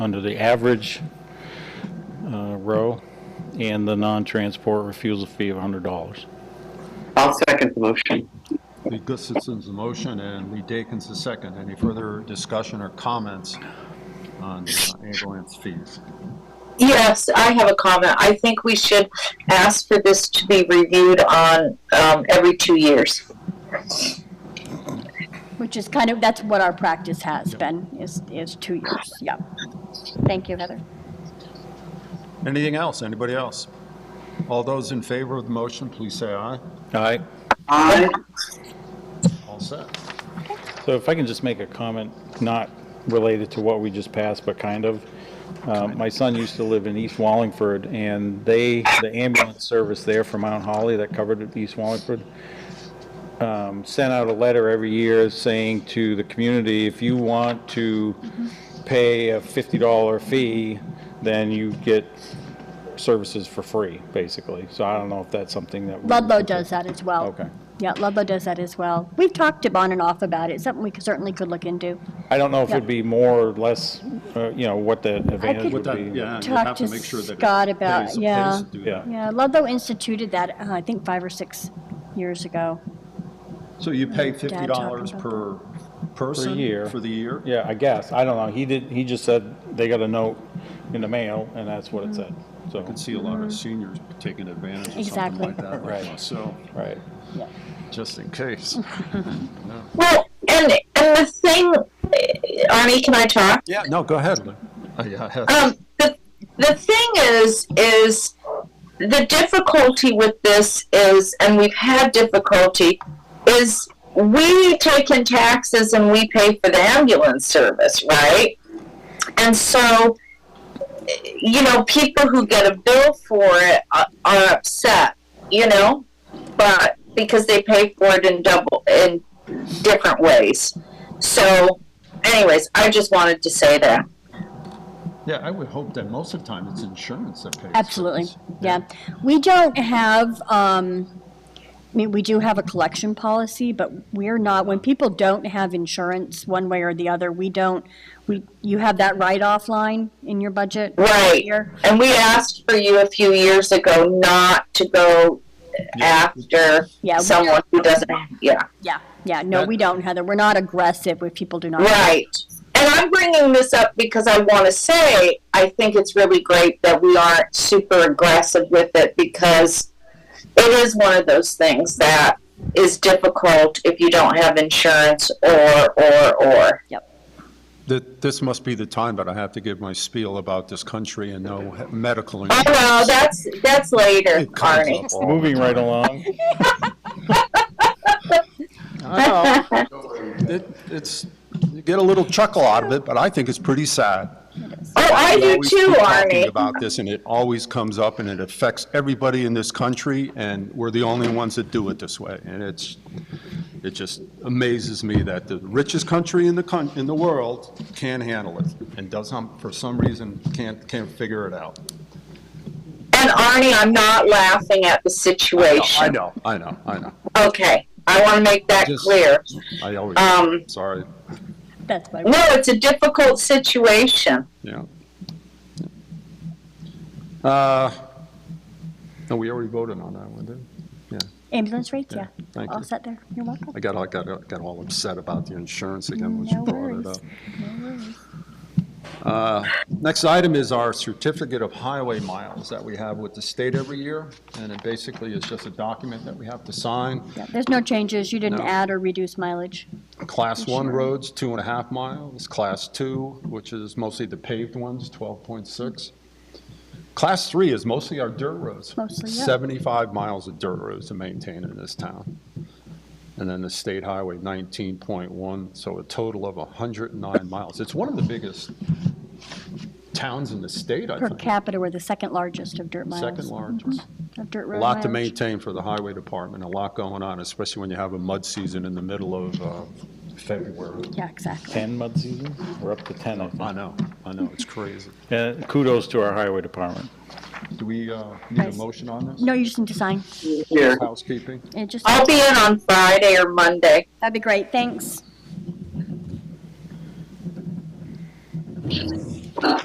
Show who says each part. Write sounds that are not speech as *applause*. Speaker 1: under the average uh, row and the non-transport refusal fee of $100.
Speaker 2: I'll second the motion.
Speaker 3: Lee Gustafson's the motion and Lee Dakin's the second. Any further discussion or comments on uh, ambulance fees?
Speaker 4: Yes, I have a comment. I think we should ask for this to be reviewed on um, every two years.
Speaker 5: Which is kind of, that's what our practice has been, is, is two years, yeah. Thank you, Heather.
Speaker 3: Anything else? Anybody else? All those in favor of the motion, please say aye.
Speaker 1: All right.
Speaker 2: Aye.
Speaker 3: All set.
Speaker 1: So if I can just make a comment, not related to what we just passed, but kind of. Uh, My son used to live in East Wallingford, and they, the ambulance service there for Mount Holly that covered East Wallingford, um, sent out a letter every year saying to the community, if you want to
Speaker 5: Mm-hmm.
Speaker 1: pay a $50 fee, then you get services for free, basically. So I don't know if that's something that. we-
Speaker 5: Ludlow does that as well.
Speaker 1: Okay.
Speaker 5: Yeah, Ludlow does that as well. We've talked to on and off about it, something we certainly could look into.
Speaker 1: I don't know if it'd
Speaker 5: Yeah.
Speaker 1: be more or less, uh, you know, what the advantage
Speaker 5: could-
Speaker 1: would
Speaker 5: What
Speaker 3: With that,
Speaker 1: be.
Speaker 3: yeah, you
Speaker 5: Talk
Speaker 3: have to
Speaker 5: to
Speaker 3: make sure that it
Speaker 5: Scott about-
Speaker 3: pays- pays
Speaker 5: yeah.
Speaker 3: to do that.
Speaker 1: Yeah,
Speaker 5: Yeah, Ludlow instituted that, uh, I think, five or six years ago.
Speaker 3: So you pay
Speaker 5: talking
Speaker 3: fifty dollars
Speaker 5: about
Speaker 3: per person?
Speaker 1: year.
Speaker 3: For the year?
Speaker 1: yeah, I guess, I don't know, he did, he just said they got a note in the mail, and that's what it said, so,
Speaker 3: I can see a lot of seniors taking advantage of something
Speaker 5: Mm-hmm. Exactly.
Speaker 3: like that.
Speaker 1: Right.
Speaker 3: So,
Speaker 1: right.
Speaker 3: just in
Speaker 5: *laughs*
Speaker 3: case.
Speaker 4: Well, and and the thing, eh, Arnie, can I talk?
Speaker 3: Yeah, no, go ahead. *laughs* Uh, yeah, Heather.
Speaker 4: um, the, the thing is is the difficulty with this is and we've had difficulty is we take in taxes and we pay for the ambulance service right and so you know people who get a bill for it are, are upset you know but because they pay for it in double in different ways so anyways i just wanted to say that
Speaker 3: Yeah, I would hope that most of the time it's insurance that pays. for
Speaker 5: Absolutely,
Speaker 3: this.
Speaker 5: yeah. We don't have, um, I mean, we do have a collection policy, but we're not, when people don't have insurance one way or the other, we don't, we, you have that write-off line in your budget.
Speaker 4: Right.
Speaker 5: Here.
Speaker 4: And we asked for you a few years ago not to go after
Speaker 5: Yeah, we-
Speaker 4: someone who doesn't, yeah,
Speaker 5: Yeah, yeah, no,
Speaker 3: That-
Speaker 5: we don't, Heather. We're not aggressive if people do not.
Speaker 4: right. And I'm bringing this up because I want to say I think it's really great that we aren't super aggressive with it because it is one of those things that is difficult if you don't have insurance or, or, or.
Speaker 3: Th- This must be the time, but I have to give my spiel about this country and no he- medical
Speaker 4: Oh,
Speaker 3: insurance.
Speaker 4: well, that's, that's later,
Speaker 3: It comes
Speaker 4: Arnie.
Speaker 3: up all
Speaker 1: *laughs*
Speaker 3: the
Speaker 1: Moving right along,
Speaker 3: I know. It- It's, you get a little chuckle out of it, but I think it's pretty sad.
Speaker 4: Oh, I
Speaker 3: We
Speaker 4: do
Speaker 3: always
Speaker 4: too,
Speaker 3: keep Talking
Speaker 4: Arnie.
Speaker 3: about this, and it always comes up, and it affects everybody in this country, and we're the only ones that do it this way. And it's, it just amazes me that the richest country in the coun, in the world can't handle it, and doesn't, for some reason, can't, can't figure it out.
Speaker 4: And Arnie, I'm not laughing at the situation.
Speaker 3: I know, I know, I know.
Speaker 4: Okay, I want to make that
Speaker 3: Just-
Speaker 4: clear.
Speaker 3: I always,
Speaker 4: Um,
Speaker 3: sorry,
Speaker 5: That's why.
Speaker 4: No, it's a difficult situation.
Speaker 3: yeah. Uh, no, we already voted on that one, didn't we?
Speaker 5: Ambulance rates, yeah.
Speaker 3: Yeah, thank
Speaker 5: All
Speaker 3: you.
Speaker 5: set there. You're welcome.
Speaker 3: I got, I got, got all upset about the insurance again, when
Speaker 5: No
Speaker 3: you brought it
Speaker 5: worries.
Speaker 3: up. Uh, Next item is our certificate of highway miles that we have with the state every year, and it basically is just a document that we have to sign.
Speaker 5: Yeah, There's no changes. You didn't
Speaker 3: No.
Speaker 5: add or reduce mileage.
Speaker 3: Class one roads, two and a half miles, class two, which is mostly the paved ones, 12.6. Class three is mostly our dirt roads.
Speaker 5: Mostly, yeah.
Speaker 3: 75 miles of dirt roads to maintain in this town. And then the state highway, 19.1, so a total of 109 miles. It's one of the biggest towns in the state, I
Speaker 5: Per
Speaker 3: think.
Speaker 5: capita, we're the second largest of dirt miles. Mm-hmm.
Speaker 3: Second largest.
Speaker 5: Of dirt
Speaker 3: A
Speaker 5: road
Speaker 3: lot to
Speaker 5: mileage.
Speaker 3: maintain for the highway department, a lot going on, especially when you have a mud season in the middle of uh, February.
Speaker 5: Yeah, exactly.
Speaker 1: 10 mud season, we're up to 10, I
Speaker 3: I
Speaker 1: think.
Speaker 3: know, I know, it's crazy.
Speaker 1: And kudos to our highway department.
Speaker 3: Do we uh, need a
Speaker 5: Nice.
Speaker 3: motion on this?
Speaker 5: No, you just need to sign.
Speaker 2: Here.
Speaker 3: Housekeeping?
Speaker 5: It just,
Speaker 4: I'll be in on Friday or Monday.
Speaker 5: that'd be great. Thanks.